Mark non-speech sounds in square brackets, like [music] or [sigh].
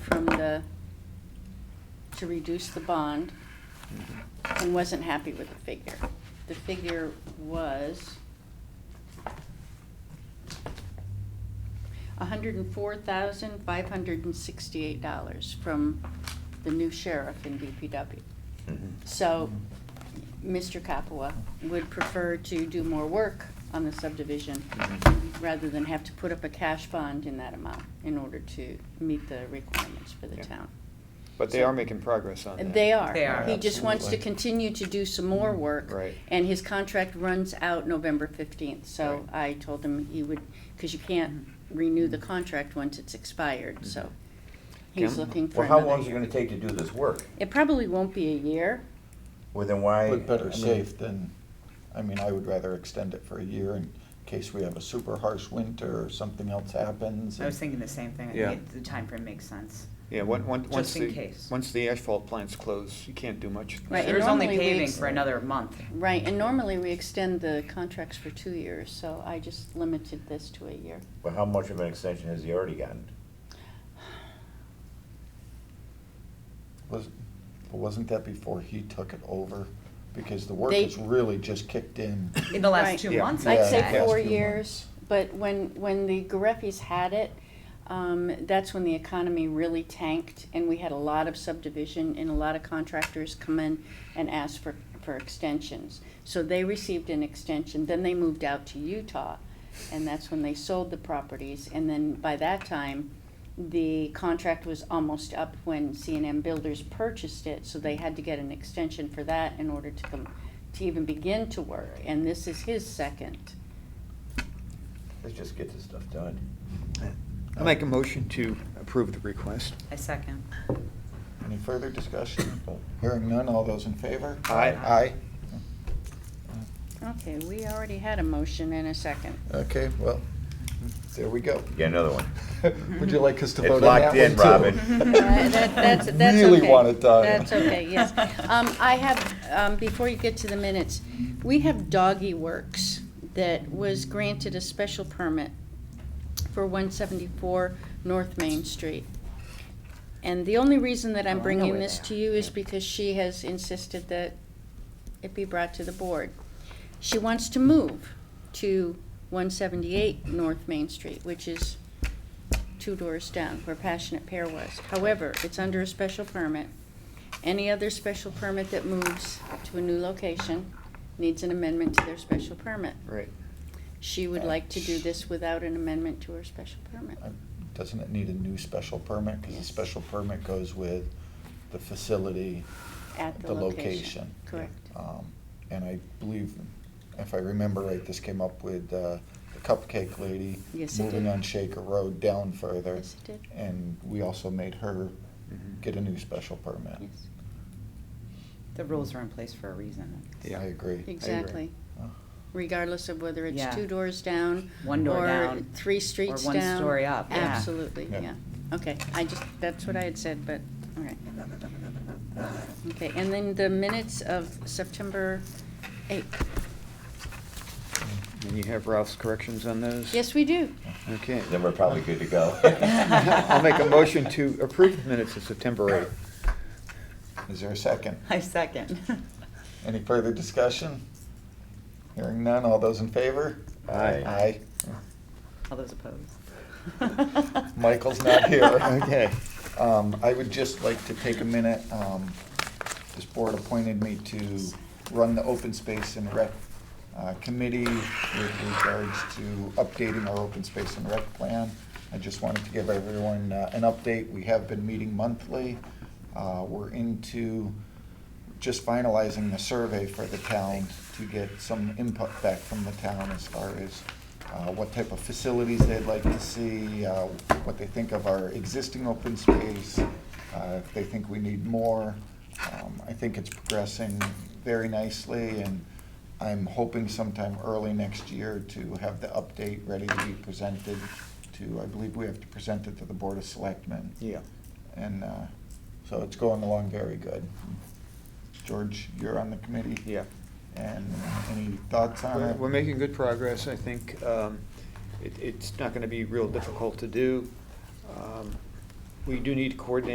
from the, to reduce the bond and wasn't happy with the figure. The figure was hundred and four thousand, five hundred and sixty-eight dollars from the new sheriff in DPW. So, Mr. Capua would prefer to do more work on the subdivision rather than have to put up a cash bond in that amount in order to meet the requirements for the Yeah. town. But they are making progress on that. And They are. They are. He just wants to Absolutely. continue to do some more Mm-hmm. work. Right. And his contract runs out November fifteenth, so Right. I told him he would, because you can't Mm-hmm. renew Mm-hmm. the contract once it's expired, so he's Kim? looking for Well, how another long is it year. gonna take to do this work? It probably won't be a year. Well, then why? But I better mean, safe than, I mean, I would rather extend it for a year in case we have a super harsh winter or something else happens. I was thinking the same thing. I Yeah. think it- the time frame makes sense. Yeah, one, one, Just once in the, case. once the asphalt plant's close, you can't do much. Right, and There's only normally we paving ex- for another month. Right, and normally we extend the contracts for two years, so I just limited this to a year. But how much of an extension has he already gotten? Was, wasn't that before he took it over? Because the work They- has really just kicked in. In the Right. last two Yeah. months, I'd I'd Yeah, say the past say. four few years, but when, when the Gareffis had it, um, that's when the economy really tanked, and we had a lot of subdivision, and a lot of contractors come in and ask for, for extensions. So they received an extension, then they moved out to Utah, and that's when they sold the properties, and then by that time, the contract was almost up when C and M Builders purchased it, so they had to get an extension for that in order to come, to even begin to work, and this is his second. Let's just get this stuff done. I make a motion to approve the request. I second. Any further discussion? Hearing none, all those in favor? Aye. Aye. Okay, we already had a motion and a second. Okay, well, there we go. Get another one. [laughs] Would you like us to It's vote on locked that [laughs] in, one, too? Robin. That- that- That's, [laughs] that's okay. Really want it done. That's okay, yes. Um, I have, um, before you get to the minutes, we have Doggy Works that was granted a special permit for one seventy-four North Main Street. And the only reason that Oh, I I'm know bringing where this they to are. you is because she has insisted that it be brought to the board. She wants to move to one seventy-eight North Main Street, which is two doors down, where Passionate Pair was. However, it's under a special permit. Any other special permit that moves to a new location needs an amendment to their special permit. Right. She would like to do this without an amendment to her special permit. Uh, Doesn't it need a new special permit? Because the Yes. special permit goes with the facility. At the location. Ah, Correct. Um, And I believe, if I remember right, this came up with uh, the Cupcake Lady. Yes, it Moving did. on Shaker Road down further. Yes, it did. And we also made her Mhm. get a new special permit. Yes, The rules are in place for a reason. Yeah. I agree. exactly. Uh, Regardless of whether Yeah. it's two doors down. One door Or down, three streets one down. story up, yeah. Absolutely, Yeah. yeah. Okay, I just, that's what I had said, but, all right. Okay, and then the minutes of September 8th. And you have Ralph's corrections on those? Yes, we do. [laughs] Okay. Then we're probably good to go. [laughs] I'll make a motion to approve the minutes of September Is there a second? [laughs] I second. [laughs] Any further discussion? Hearing none, all those in favor? Aye. Aye. All those opposed? Michael's not [laughs] here. 8th. Okay. Um, I would just like to take a minute, um, this board appointed me to run the open space and rec, uh, committee with regards to updating our open space and rec plan. I just wanted to give everyone, uh, an update. We have been meeting monthly. Uh, we're into just finalizing the survey for the town to get some input back from the town as far as uh, what type of facilities they'd like to see, uh, what they think of our existing open space, uh, if they think we need more. Um, I think it's progressing very nicely, and I'm hoping sometime early next year to have the update ready to be presented to, I believe we have to present it to the Board of Selectmen. Yeah. And uh, so it's going along very good. George, you're on the committee? Yeah. And any thoughts Uh, on We're it? we're making good progress, I think. Um, it- It's not going to be real difficult to do. Um, We do need to coordinate